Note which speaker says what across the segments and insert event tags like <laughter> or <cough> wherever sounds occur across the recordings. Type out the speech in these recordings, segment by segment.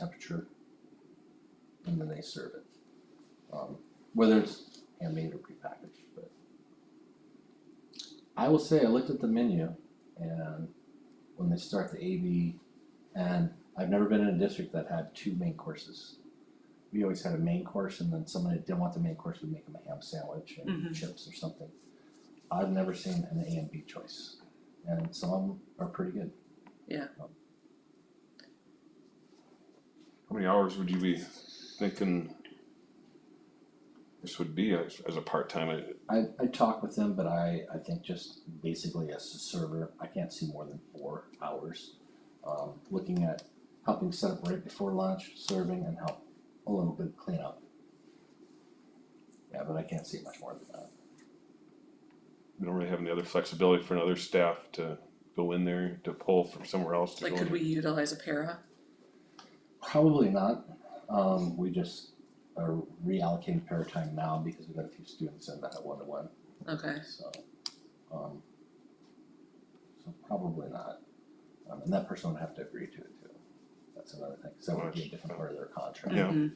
Speaker 1: temperature, and then they serve it. Um, Whether it's handmade or prepackaged, but. I will say, I looked at the menu and when they start the AV, and I've never been in a district that had two main courses. We always had a main course and then someone that didn't want the main course would make them a ham sandwich and
Speaker 2: Mhm.
Speaker 1: chips or something. I've never seen an A and B choice, and some of them are pretty good.
Speaker 3: How many hours would you be thinking this would be as, as a part time? I
Speaker 1: I, I talk with them, but I, I think just basically as a server, I can't see more than four hours. Um, looking at helping set up right before lunch, serving and help a little bit clean up. Yeah, but I can't see much more than that.
Speaker 3: don't really have any other flexibility for another staff to go in there to pull from somewhere else to
Speaker 2: Like,
Speaker 3: go.
Speaker 2: could
Speaker 3: in.
Speaker 2: we utilize a para?
Speaker 1: Probably not, um, we just are reallocating para time now because we've got a few students in that one to one,
Speaker 2: Okay,
Speaker 1: so, um. So probably not, um, and that person would have to agree to it too, that's another thing, so that would be a different part of their contract.
Speaker 3: Yeah.
Speaker 2: Mhm.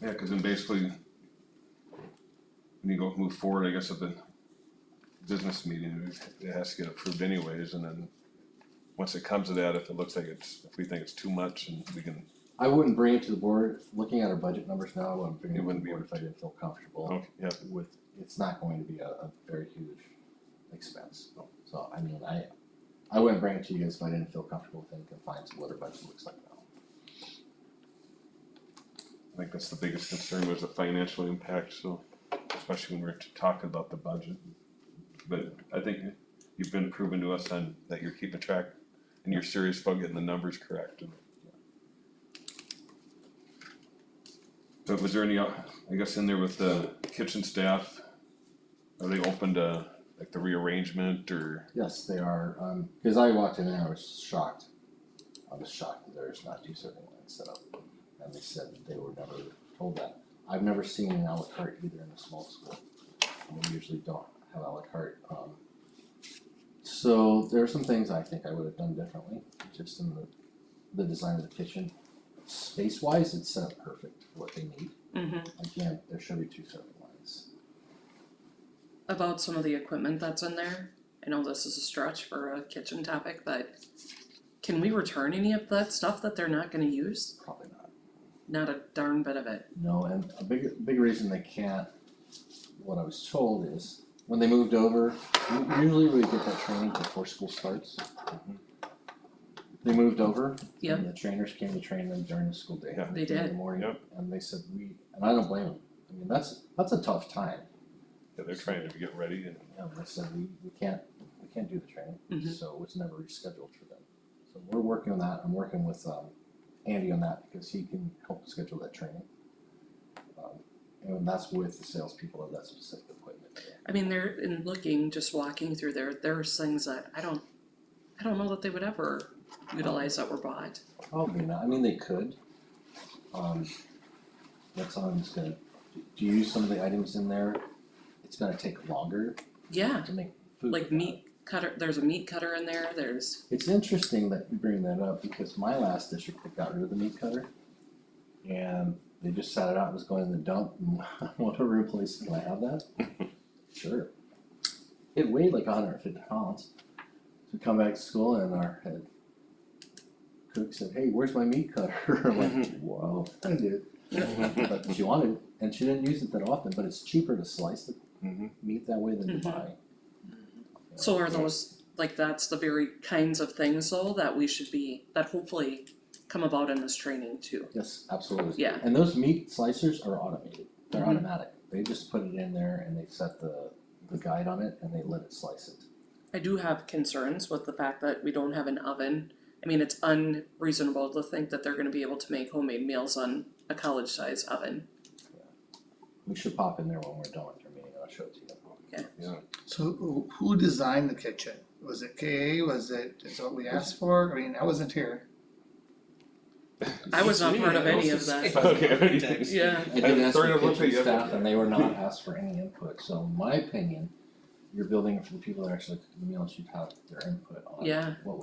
Speaker 3: Yeah, because then basically, when you go move forward, I guess at the business meeting, it has to get approved anyways, and then once it comes to that, if it looks like it's, if we think it's too much and we can,
Speaker 1: I wouldn't bring it to the board, looking at our budget numbers now, I wouldn't bring it
Speaker 3: It
Speaker 1: to the
Speaker 3: wouldn't be
Speaker 1: board if I didn't feel comfortable
Speaker 3: okay, yeah,
Speaker 1: with, it's not going to be a, a very huge expense. So, I mean, I, I wouldn't bring it to you guys if I didn't feel comfortable with any confines of what our budget looks like now.
Speaker 3: I think that's the biggest concern was the financial impact, so especially when we're talking about the budget. But I think you've been proven to us on that you're keeping track and you're serious about getting the numbers correct. and- So was there any, uh, I guess in there with the kitchen staff, are they open to like the rearrangement or?
Speaker 1: Yes, they are, um, cause I walked in and I was shocked. I was shocked that there's not two serving lines set up, and they said that they were never told that. I've never seen an à la carte either in a small school, and we usually don't have à la carte, um. So there are some things I think I would have done differently, just in the, the design of the kitchen. Space wise, it's set up perfect for what they need,
Speaker 2: mhm.
Speaker 1: again, there should be two serving lines.
Speaker 2: About some of the equipment that's in there, I know this is a stretch for a kitchen topic, but can we return any of that stuff that they're not gonna use?
Speaker 1: Probably not.
Speaker 2: Not a darn bit of it.
Speaker 1: No, and a big, big reason they can't, what I was told is, when they moved over, u- usually we get that training before school starts. They moved over,
Speaker 2: Yep.
Speaker 1: and the trainers came to train them during the school day.
Speaker 3: Yeah.
Speaker 2: They
Speaker 1: In the
Speaker 2: did.
Speaker 1: morning,
Speaker 3: Yep.
Speaker 1: and they said, we, and I don't blame them, I mean, that's, that's a tough time,
Speaker 3: Yeah, they're trying to get ready and
Speaker 1: you know, they said, we, we can't, we can't do the training,
Speaker 2: Mhm.
Speaker 1: so it was never rescheduled for them. So we're working on that, I'm working with, um, Andy on that, because he can help schedule that training. Um, And that's with the salespeople of that specific equipment.
Speaker 2: I mean, they're, in looking, just walking through there, there's things that I don't, I don't know that they would ever utilize that were bought.
Speaker 1: Probably not, I mean, they could. Um, that's all I'm just gonna, do you use some of the items in there? It's gonna take longer
Speaker 2: Yeah,
Speaker 1: to make food.
Speaker 2: like meat cutter, there's a meat cutter in there, there's,
Speaker 1: It's interesting that you bring that up because my last district, they got rid of the meat cutter. And they just sat it out, it was going in the dump, and <laughs> whatever replace, can I have that? Sure. It weighed like hundred and fifty pounds. So we come back to school and our head cook said, hey, where's my meat cutter? <laughs> I'm like, whoa, I did. But she wanted, it, and she didn't use it that often, but it's cheaper to slice the
Speaker 3: Mhm.
Speaker 1: meat that way than to
Speaker 2: Mhm.
Speaker 1: buy.
Speaker 2: so are those, like, that's the very kinds of things though that we should be, that hopefully come about in this training too.
Speaker 1: Yes, absolutely.
Speaker 2: Yeah.
Speaker 1: And those meat slicers are automated. They're
Speaker 2: Mhm.
Speaker 1: automatic. They just put it in there and they set the the guide on it and they let it slice it.
Speaker 2: I do have concerns with the fact that we don't have an oven. I mean, it's unreasonable to think that they're gonna be able to make homemade meals on a college size oven.
Speaker 1: We should pop in there when we're done with your meeting and I'll show it to you.
Speaker 4: So who- who designed the kitchen? Was it KA? Was it, is what we asked for? I mean, I wasn't here.
Speaker 2: I was not part of any of that.
Speaker 3: <laughs> Okay.
Speaker 2: Yeah,
Speaker 1: I did ask
Speaker 3: Sorry,
Speaker 1: the
Speaker 3: I'm looking
Speaker 1: kitchen
Speaker 3: at
Speaker 1: <laughs>
Speaker 3: you.
Speaker 1: staff and they were not asked for any input, so in my opinion, you're building it for the people that are actually cooking the meals, you have their input on
Speaker 2: Yeah.
Speaker 1: what